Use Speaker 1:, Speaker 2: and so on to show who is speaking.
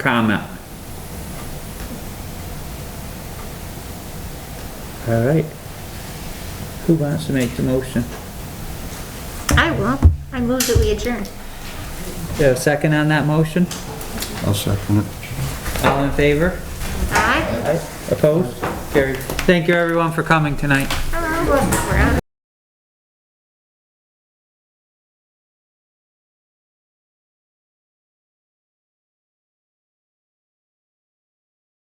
Speaker 1: comment. All right. Who wants to make the motion?
Speaker 2: I will. I move that we adjourn.
Speaker 1: Is there a second on that motion?
Speaker 3: I'll second it.
Speaker 1: All in favor?
Speaker 2: Aye.
Speaker 1: Opposed? Carried. Thank you everyone for coming tonight.
Speaker 2: Oh, we're out of